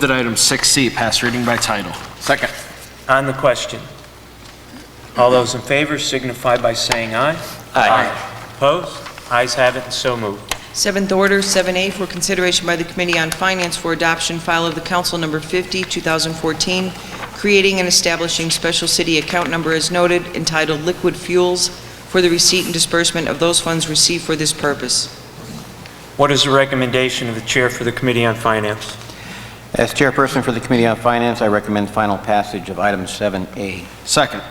That item 6C, pass reading by title. Second. On the question, all those in favor signify by saying aye. Opposed? Ayes have it and so moved. Seventh order, 7A, for consideration by the Committee on Finance for Adoption, file of the Council Number 50, 2014, creating and establishing special city account number as noted entitled Liquid Fuels for the receipt and disbursement of those funds received for this purpose. What is the recommendation of the Chair for the Committee on Finance? As chairperson for the Committee on Finance, I recommend final passage of item 7A. Second.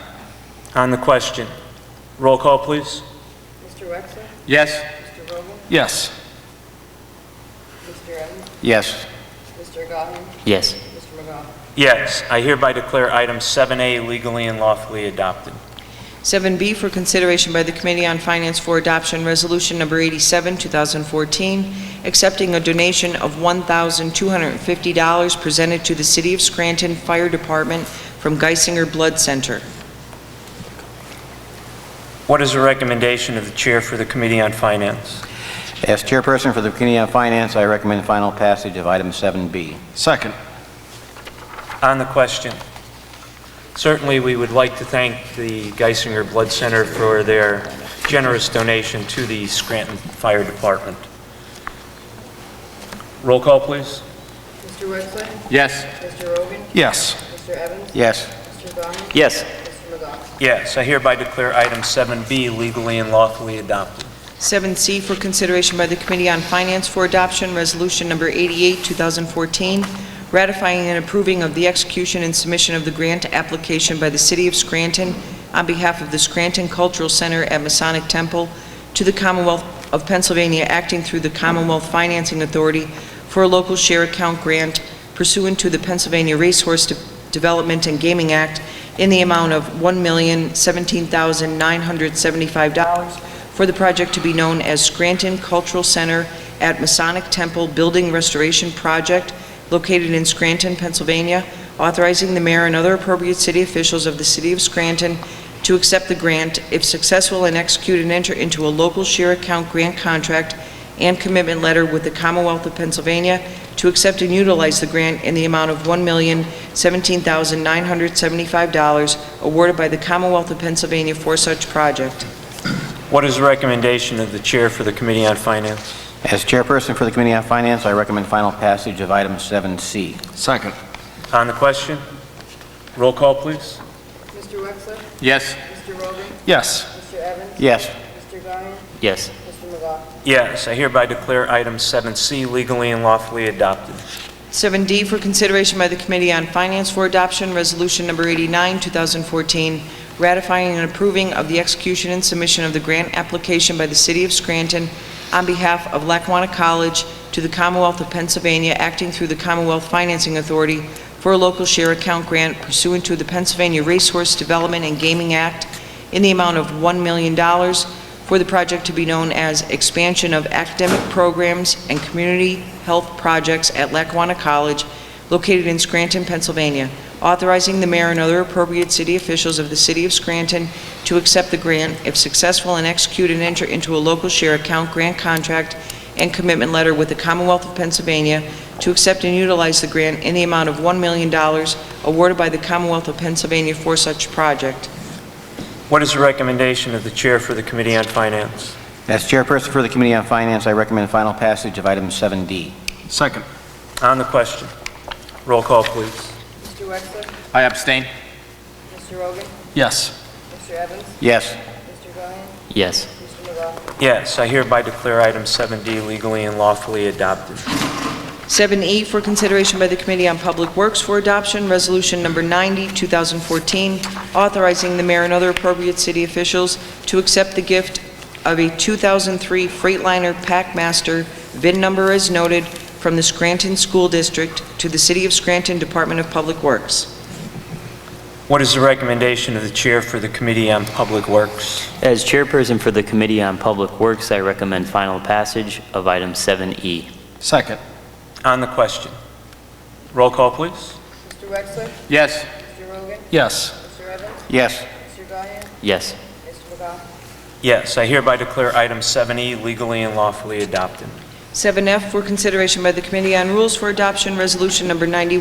On the question, roll call, please. Mr. Wexler? Yes. Mr. Rogel? Yes. Mr. Evans? Yes. Mr. Gahan? Yes. Mr. McGough? Yes, I hereby declare item 7A legally and lawfully adopted. 7B, for consideration by the Committee on Finance for Adoption, resolution Number 87, 2014, accepting a donation of $1,250 presented to the City of Scranton Fire Department from Geisinger Blood Center. What is the recommendation of the Chair for the Committee on Finance? As chairperson for the Committee on Finance, I recommend final passage of item 7B. Second. On the question, certainly we would like to thank the Geisinger Blood Center for their generous donation to the Scranton Fire Department. Roll call, please. Mr. Wexler? Yes. Mr. Rogan? Yes. Mr. Evans? Yes. Mr. Gahan? Yes. Mr. McGough? Yes, I hereby declare item 7B legally and lawfully adopted. 7C for consideration by the Committee on Finance for Adoption, Resolution Number 88, 2014, ratifying and approving of the execution and submission of the grant application by the City of Scranton on behalf of the Scranton Cultural Center at Masonic Temple to the Commonwealth of Pennsylvania, acting through the Commonwealth Financing Authority for a local share account grant pursuant to the Pennsylvania Racehorse De- Development and Gaming Act in the amount of $1,017,975 for the project to be known as Scranton Cultural Center at Masonic Temple Building Restoration Project located in Scranton, Pennsylvania, authorizing the mayor and other appropriate city officials of the city of Scranton to accept the grant if successful and execute and enter into a local share account grant contract and commitment letter with the Commonwealth of Pennsylvania to accept and utilize the grant in the amount of $1,017,975 awarded by the Commonwealth of Pennsylvania for such project. What is the recommendation of the Chair for the Committee on Finance? As chairperson for the Committee on Finance, I recommend final passage of item 7C. Second. On the question, roll call, please. Mr. Wexler? Yes. Mr. Rogan? Yes. Mr. Evans? Yes. Mr. Gahan? Yes. Mr. McGough? Yes, I hereby declare item 7C legally and lawfully adopted. 7D for consideration by the Committee on Finance for Adoption, Resolution Number 89, 2014, ratifying and approving of the execution and submission of the grant application by the City of Scranton on behalf of Lackawanna College to the Commonwealth of Pennsylvania, acting through the Commonwealth Financing Authority for a local share account grant pursuant to the Pennsylvania Racehorse Development and Gaming Act in the amount of $1 million for the project to be known as Expansion of Academic Programs and Community Health Projects at Lackawanna College, located in Scranton, Pennsylvania, authorizing the mayor and other appropriate city officials of the city of Scranton to accept the grant if successful and execute and enter into a local share account grant contract and commitment letter with the Commonwealth of Pennsylvania to accept and utilize the grant in the amount of $1 million awarded by the Commonwealth of Pennsylvania for such project. What is the recommendation of the Chair for the Committee on Finance? As chairperson for the Committee on Finance, I recommend final passage of item 7D. Second. On the question, roll call, please. Mr. Wexler? I abstain. Mr. Rogan? Yes. Mr. Evans? Yes. Mr. Gahan? Yes. Mr. McGough? Yes, I hereby declare item 7D legally and lawfully adopted. 7E E, for consideration by the Committee on Public Works for Adoption, Resolution Number 90, 2014, authorizing the mayor and other appropriate city officials to accept the gift of a 2003 Freightliner Packmaster, VIN number as noted, from the Scranton School District to the City of Scranton Department of Public Works. What is the recommendation of the Chair for the Committee on Public Works? As chairperson for the Committee on Public Works, I recommend final passage of item E. 7E. Second. On the question, roll call, please. Mr. Wexler? Yes. Mr. Rogan? Yes. Mr. Evans? Yes. Mr. Gahan? Yes. Mr. McGough? Yes, I hereby declare item 7E legally and lawfully adopted. 7F for consideration by the Committee on Rules for Adoption, Resolution Number 91,